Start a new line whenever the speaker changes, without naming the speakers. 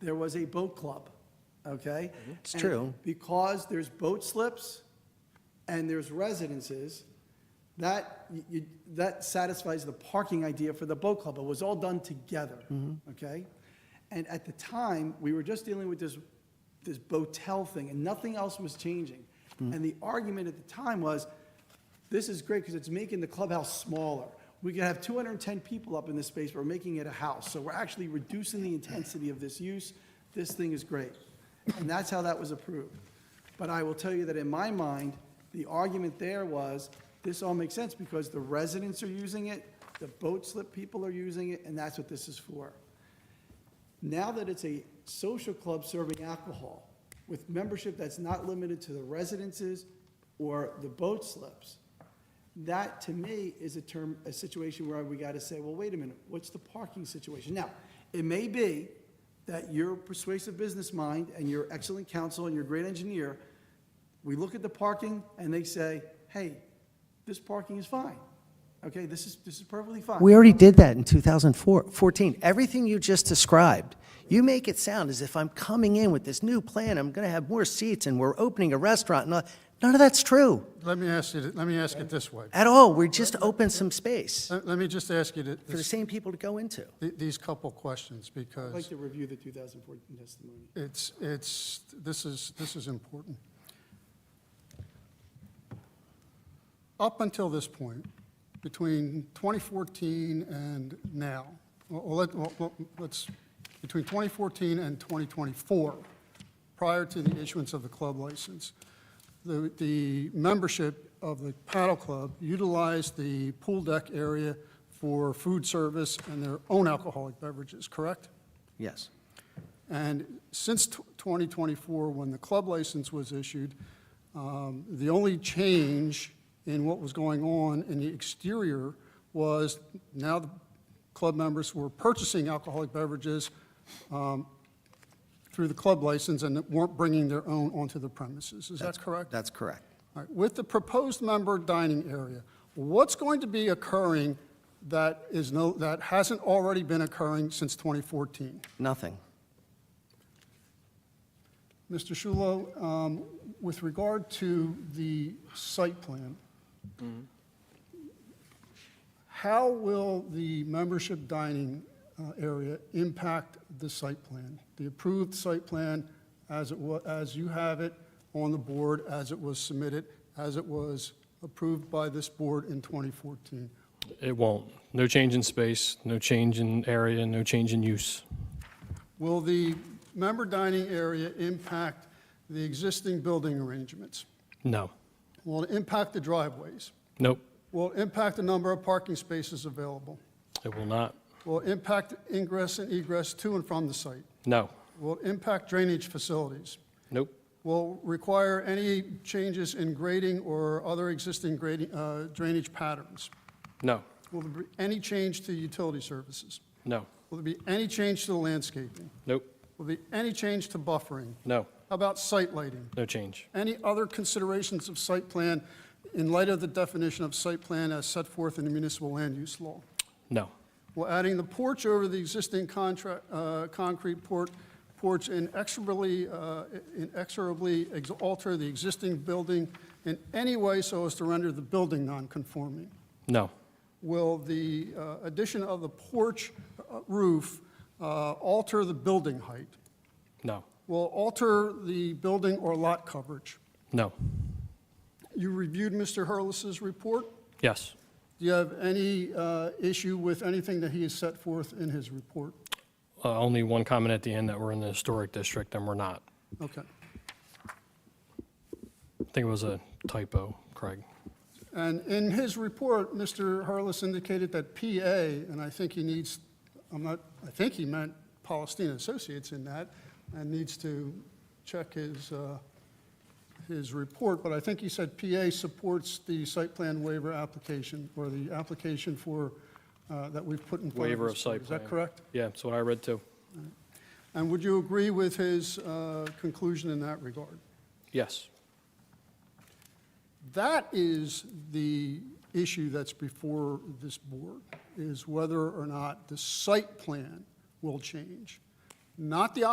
there was a boat club, okay?
Mm-hmm. It's
And
true.
Because there's boat slips and there's residences, that, you- you, that satisfies the parking idea for the boat club. It was all done together,
Mm-hmm.
okay? And at the time, we were just dealing with this, this boatel thing, and nothing else was changing.
Mm.
And the argument at the time was, this is great because it's making the clubhouse smaller. We could have 210 people up in this space, we're making it a house. So we're actually reducing the intensity of this use. This thing is great. And that's how that was approved. But I will tell you that in my mind, the argument there was, this all makes sense because the residents are using it, the boat slip people are using it, and that's what this is for. Now that it's a social club serving alcohol with membership that's not limited to the residences or the boat slips, that to me is a term, a situation where we got to say, well, wait a minute, what's the parking situation? Now, it may be that your persuasive business mind and your excellent counsel and your great engineer, we look at the parking and they say, hey, this parking is fine. Okay, this is, this is perfectly fine.
We already did that in 2014. Everything you just described, you make it sound as if I'm coming in with this new plan, I'm going to have more seats, and we're opening a restaurant. and all- None of that's true
Let me ask you, th- let me ask it this way.
at all. We just opened some space
Let let me just ask you th-
for the
this-
same people to go into.
th- these couple questions,
I'd like
because
to review the 2014 testimony.
it's, it's, this is, this is important. Up until this point, between 2014 and now, well, let- well, well, let's, between 2014 and 2024, prior to the issuance of the club license, the, the membership of the paddle club utilized the pool deck area for food service and their own alcoholic beverages, correct?
Yes.
And since tw- 2024, when the club license was issued, um, the only change in what was going on in the exterior was now the club members were purchasing alcoholic beverages um, through the club license and weren't bringing their own onto the premises. Is that correct?
That's correct.
All right, With the proposed member dining area, what's going to be occurring that is no, that hasn't already been occurring since 2014?
Nothing.
Mr. Shulo, um, with regard to the site plan, how will the membership dining uh, area impact the site plan? The approved site plan as it wa, as you have it on the board, as it was submitted, as it was approved by this board in 2014?
It won't. No change in space, no change in area, no change in use.
Will the member dining area impact the existing building arrangements?
No.
Will it impact the driveways?
Nope.
Will it impact the number of parking spaces available?
It will not.
Will it impact ingress and egress to and from the site?
No.
Will it impact drainage facilities?
Nope.
Will require any changes in grading or other existing grading, uh, drainage patterns?
No.
Will there be any change to utility services?
No.
Will there be any change to the landscaping?
Nope.
Will there be any change to buffering?
No.
How about site lighting?
No change.
Any other considerations of site plan in light of the definition of site plan as set forth in the municipal land use law?
No.
Well, adding the porch over the existing contract, uh, concrete port, porch inexorably, uh, inexorably ex- alter the existing building in any way so as to render the building non-conforming.
No.
Will the uh, addition of the porch uh, roof uh, alter the building height?
No.
Will alter the building or lot coverage?
No.
You reviewed Mr. Hurlis's report.
Yes.
Do you have any uh, issue with anything that he has set forth in his report?
Uh, Only one comment at the end that we're in the historic district and we're not.
Okay.
I think it was a typo, Craig.
And in his report, Mr. Harless indicated that PA, and I think he needs, I'm not, I think he meant Palestine Associates in that, and needs to check his, uh, his report, but I think he said PA supports the site plan waiver application, or the application for, uh, that we've put in front of
Waiver
us.
of site
Is that
plan.
correct?
Yeah, that's what I read too.
And would you agree with his uh, conclusion in that regard?
Yes.
That is the issue that's before this board, is whether or not the site plan will change, not the